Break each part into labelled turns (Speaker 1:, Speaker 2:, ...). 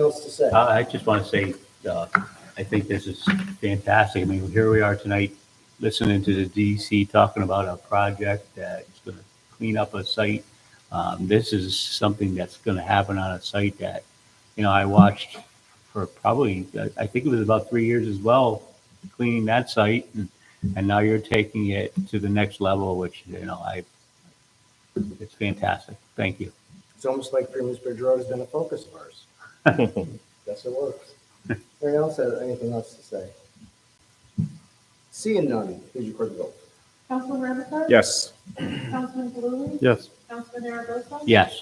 Speaker 1: else to say?
Speaker 2: I I just want to say, uh, I think this is fantastic. I mean, here we are tonight, listening to the DC talking about a project that's going to clean up a site. Um, This is something that's going to happen on a site that, you know, I watched for probably, I- I think it was about three years as well, cleaning that site. and- And now you're taking it to the next level, which, you know, I, it's fantastic. Thank you.
Speaker 1: It's almost like Freeman's Bridge Road has been a focus of ours. Guess it works. Anyone else have anything else to say? Seeing none, please record the vote.
Speaker 3: Councilman Ramatgar?
Speaker 4: Yes.
Speaker 3: Councilman Bluey?
Speaker 4: Yes.
Speaker 3: Councilman Aragosa?
Speaker 2: Yes.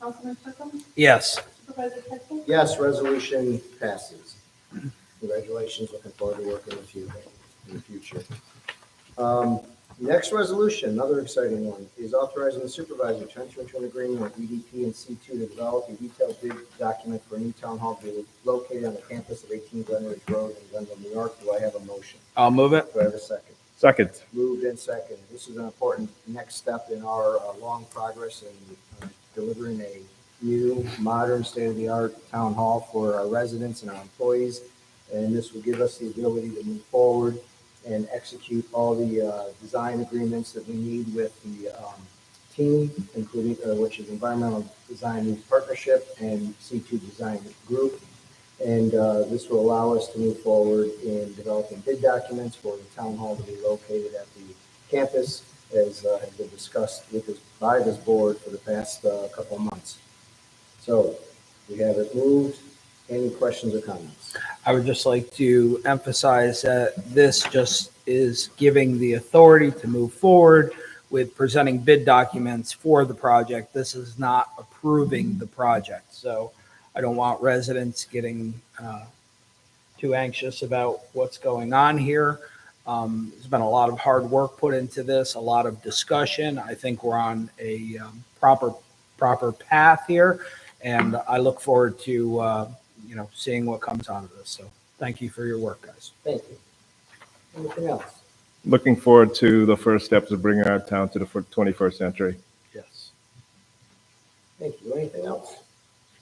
Speaker 3: Councilman Kirkham?
Speaker 5: Yes.
Speaker 3: Supervisor Pettsley?
Speaker 1: Yes, resolution passes. Congratulations, looking forward to working with you in the future. Um, Next resolution, another exciting one, is authorizing the supervisor to enter into an agreement with EDP and C2 to develop a detailed bid document for a new town hall to be located on the campus of 18 Glenridge Road in Glenville, New York. Do I have a motion?
Speaker 5: I'll move it.
Speaker 1: Do I have a second?
Speaker 4: Second.
Speaker 1: Moved and seconded. This is an important next step in our uh, long progress in uh, delivering a new, modern, state-of-the-art town hall for our residents and our employees. And this will give us the ability to move forward and execute all the uh, design agreements that we need with the um, team, including, uh, which is Environmental Design Youth Partnership and C2 Design Group. And uh, this will allow us to move forward in developing bid documents for the town hall to be located at the campus as uh, has been discussed with this, by this board for the past uh, couple of months. So we have it moved. Any questions or comments?
Speaker 5: I would just like to emphasize that this just is giving the authority to move forward with presenting bid documents for the project. This is not approving the project. So I don't want residents getting uh, too anxious about what's going on here. Um, There's been a lot of hard work put into this, a lot of discussion. I think we're on a um, proper, proper path here. And I look forward to uh, you know, seeing what comes out of this. So thank you for your work, guys.
Speaker 1: Thank you. Anything else?
Speaker 4: Looking forward to the first steps of bringing our town to the fir- 21st century.
Speaker 5: Yes.
Speaker 1: Thank you. Anything else?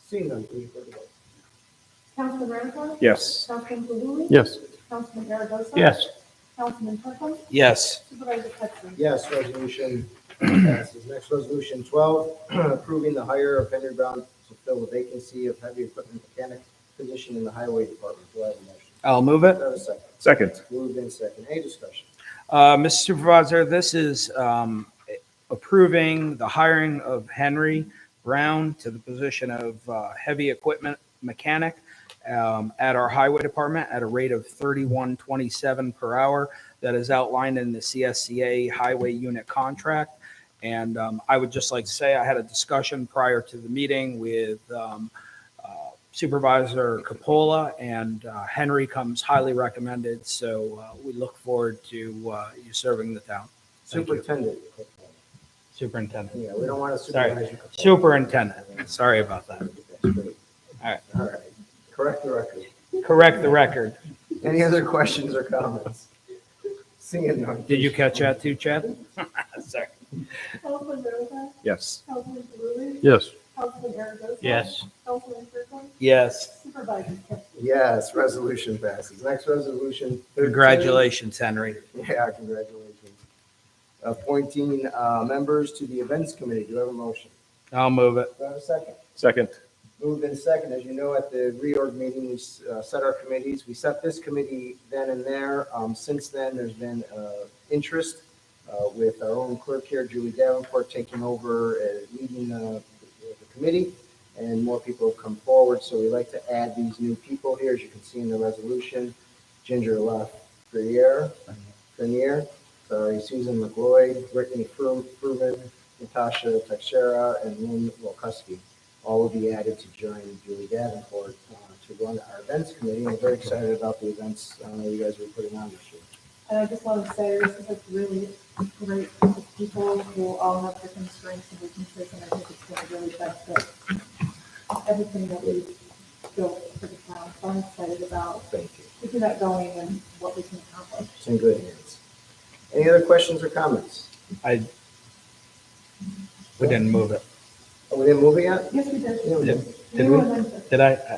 Speaker 1: Seeing none, please record the vote.
Speaker 3: Councilman Ramatgar?
Speaker 4: Yes.
Speaker 3: Councilman Bluey?
Speaker 4: Yes.
Speaker 3: Councilman Aragosa?
Speaker 2: Yes.
Speaker 3: Councilman Kirkham?
Speaker 5: Yes.
Speaker 3: Supervisor Pettsley?
Speaker 1: Yes, resolution passes. Next, resolution twelve, approving the hire of Henry Brown to fill the vacancy of heavy equipment mechanic position in the highway department. Do I have a motion?
Speaker 5: I'll move
Speaker 1: Do
Speaker 5: it.
Speaker 1: I have a second?
Speaker 4: Second.
Speaker 1: Moved in second. Any discussion?
Speaker 5: Uh, Mr. Supervisor, this is um, approving the hiring of Henry Brown to the position of uh, heavy equipment mechanic um, at our highway department at a rate of 3127 per hour that is outlined in the CSCA highway unit contract. And um, I would just like to say I had a discussion prior to the meeting with um, uh, Supervisor Capola, and uh, Henry comes highly recommended. So uh, we look forward to uh, you serving the town, Thank you.
Speaker 1: Superintendent.
Speaker 5: Superintendent.
Speaker 1: Yeah, we don't want to
Speaker 5: Sorry.
Speaker 1: supervise.
Speaker 5: Superintendent, sorry about that. All right.
Speaker 1: All right. Correct the record.
Speaker 5: Correct the record.
Speaker 1: Any other questions or comments? Seeing none.
Speaker 5: Did you catch that too, Chad? Sorry.
Speaker 3: Councilman Ramatgar?
Speaker 4: Yes.
Speaker 3: Councilman Bluey?
Speaker 4: Yes.
Speaker 3: Councilman Aragosa?
Speaker 2: Yes.
Speaker 3: Councilman Kirkham?
Speaker 5: Yes,
Speaker 3: Supervisor Pettsley?
Speaker 1: Yes, resolution passes. Next resolution. 13.
Speaker 5: congratulations, Henry.
Speaker 1: Yeah, congratulations. Appointing uh, members to the events committee. Do I have a motion?
Speaker 5: I'll move it.
Speaker 1: Do I have a second?
Speaker 4: Second.
Speaker 1: Moved in second. As you know, at the reorg meeting, we uh, set our committees. We set this committee then and there. Um, Since then, there's been uh, interest uh, with our own clerk here, Julie Davenport, taking over, uh, leading uh, the the committee, and more people have come forward. So we like to add these new people here, as you can see in the resolution. Ginger Lafreniere, Grenier, sorry, Susan McGloy, Brittany Fru- Fruman, Natasha Texera, and Lynn Wolkowski all will be added to join Julie Davenport uh, to run our events committee. I'm very excited about the events uh, you guys are putting on this year.
Speaker 3: And I just want to say, this is a really great group of people who all have different strengths and weaknesses, and I think it's going to really benefit everything that we built for the town. So I'm excited about
Speaker 1: Thank you.
Speaker 3: where you're not going and what we can accomplish.
Speaker 1: It's in good hands. Any other questions or comments?
Speaker 5: I, we didn't move it.
Speaker 1: Are we in movie yet?
Speaker 3: Yes, we did.
Speaker 1: Yeah, we did.
Speaker 5: Did
Speaker 3: were
Speaker 5: we?
Speaker 3: on Wednesday.
Speaker 5: Did I?